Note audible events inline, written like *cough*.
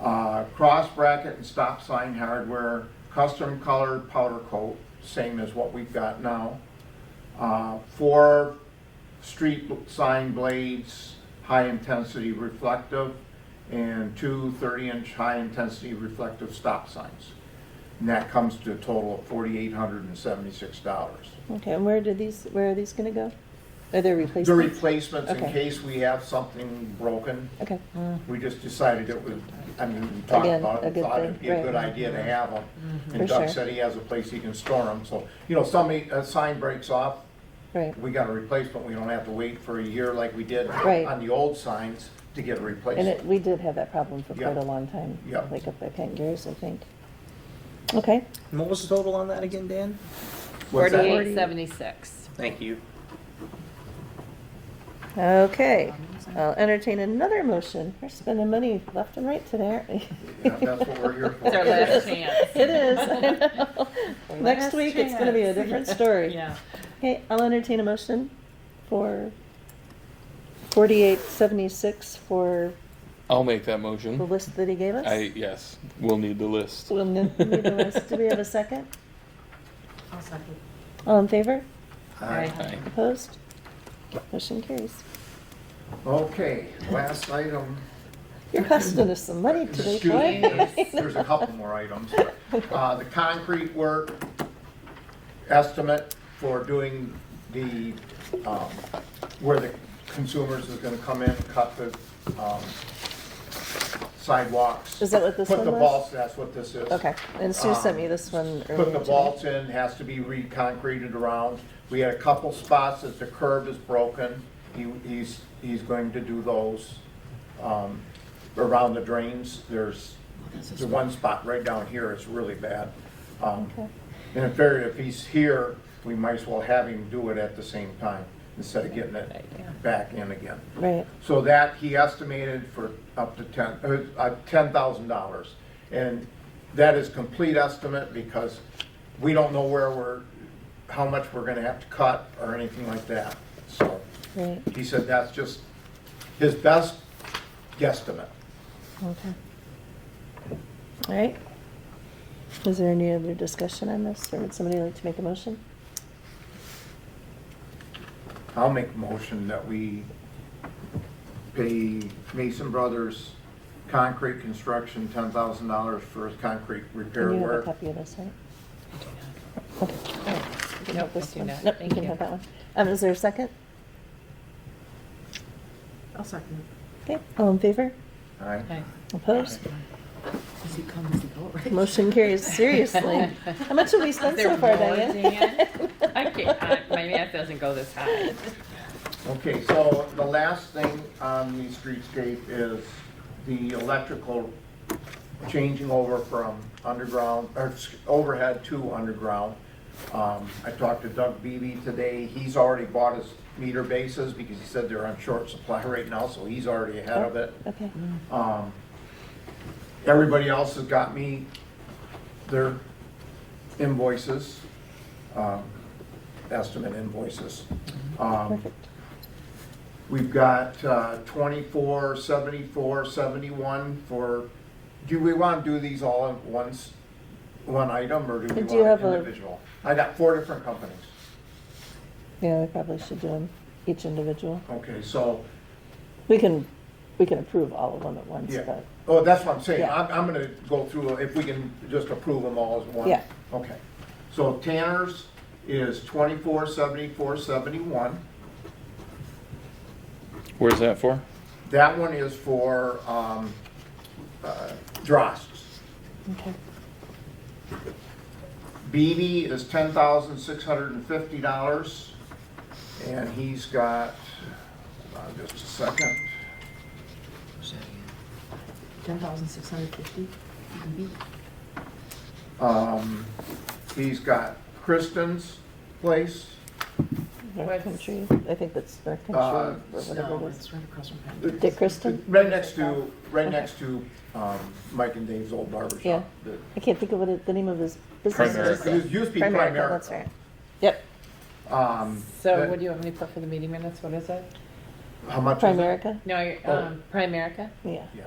Uh, Cross bracket and stop sign hardware, custom colored powder coat, same as what we've got now. Uh, Four street sign blades, high-intensity reflective, and two 30-inch high-intensity reflective stop signs. And that comes to a total of $4,876. Okay, and where did these, where are these gonna go? Are they replacements? The replacements, in Okay. case we have something broken, Okay, we just decided it would, I mean, we talked Again, about a it, good thought it'd thing, be a right. good idea to have them. For And Doug sure. said he has a place he can store them, so, you know, somebody, a sign breaks off, right, we got a replacement, we don't have to wait for a year like we did Right. on the old signs to get a and it, replacement. we did have that problem for quite Yeah. a long time. Yeah. Like up at Pangareas, I think. Okay, And what was the total on that again, Dan? What's that? Forty-eight seventy-six. Thank you. okay, I'll entertain another motion, we're spending money left and right today. Yeah, That's what we're here It's our for. last chance. *laughs* It *laughs* is, I know. Next week, it's gonna be a different story. *laughs* Yeah. Okay, I'll entertain a motion for forty-eight seventy-six for I'll make that the motion. list that he gave us. I, yes, we'll need the list. We'll n- need the list. Do we have a second? All in favor? Aye. Aye. Opposed? Motion carries. Okay, last item. You're costing us some money today, Excuse me, boy. there's- There's a couple more items. Uh, The concrete work estimate for doing the, um, where the consumers is gonna come in, cut the um, sidewalks. Is that what this Put one the was? balls, that's what this is. Okay, and Sue sent me this one earlier. Put the today. vaults in, has to be re-concreted around. We had a couple spots that the curb is broken. He, he's, he's going to do those, um, around the drains. There's, the one spot right down here is really bad. Um, Okay. and if there, if he's here, we might as well have him do it at the same time instead of getting it back in again. Right, So that he estimated for up to ten, uh, uh, ten thousand dollars. And that is complete estimate because we don't know where we're, how much we're gonna have to cut or anything like that. So right, he said that's just his best guesstimate. okay. All right. Is there any other discussion on this, or would somebody like to make a motion? I'll make a motion that we pay Mason Brothers Concrete Construction ten thousand dollars for his concrete repair And you have a work. copy of this, right? You can Nope, have this I do one. not. Nope, you Thank can you. have that one. Um, is there a second? I'll second Okay, all in favor? All right? Okay. Opposed? it. Does he come, does he go, right? Motion *laughs* carries seriously. How much have we spent so There far, more, Diane? *laughs* Dan? I can't, I- my math doesn't go this high. Okay, so the last thing on the streetscape is the electrical changing over from underground, or s- overhead to underground. Um, I talked to Doug Beebe today, he's already bought his meter bases because he said they're on short supply *laughs* right now, so he's already ahead of it. Okay, Um, Everybody else has got me their invoices, um, estimate invoices. Um, perfect. We've got uh, 24, 74, 71 for, do we want to do these all at once, one item, or do we Do you want have a- individual? I got four different companies. Yeah, we probably should do them each individual. Okay, so, We can, we can approve all of them at once, yeah. but, Oh, that's what I'm saying. Yeah. I'm, I'm going to go through, if we can just approve them all as one. Yeah. Okay. So Tanner's is 24, 74, 71. Where's that for? That one is for um, uh, Drosts. okay. Beatty is ten thousand six hundred and fifty dollars, and he's got, uh, just a second. Ten thousand six hundred fifty, Um, he's got Kristen's place, North What's- Country, I think that's North Uh, Country or whatever No, it is. Oh, it's right across from The- him. Dick Kristen? right next to, right next to, um, Mike and Dave's old barber Yeah. shop. The- I can't think of what it- the name of his business is. Primerica. It used to be Primerica, That's right. Primerica. Yep, Um, So that- what do you want me to put for the meeting minutes? What is it? How much is it? Oh. Primerica, No, um, Primerica? yeah. Yeah.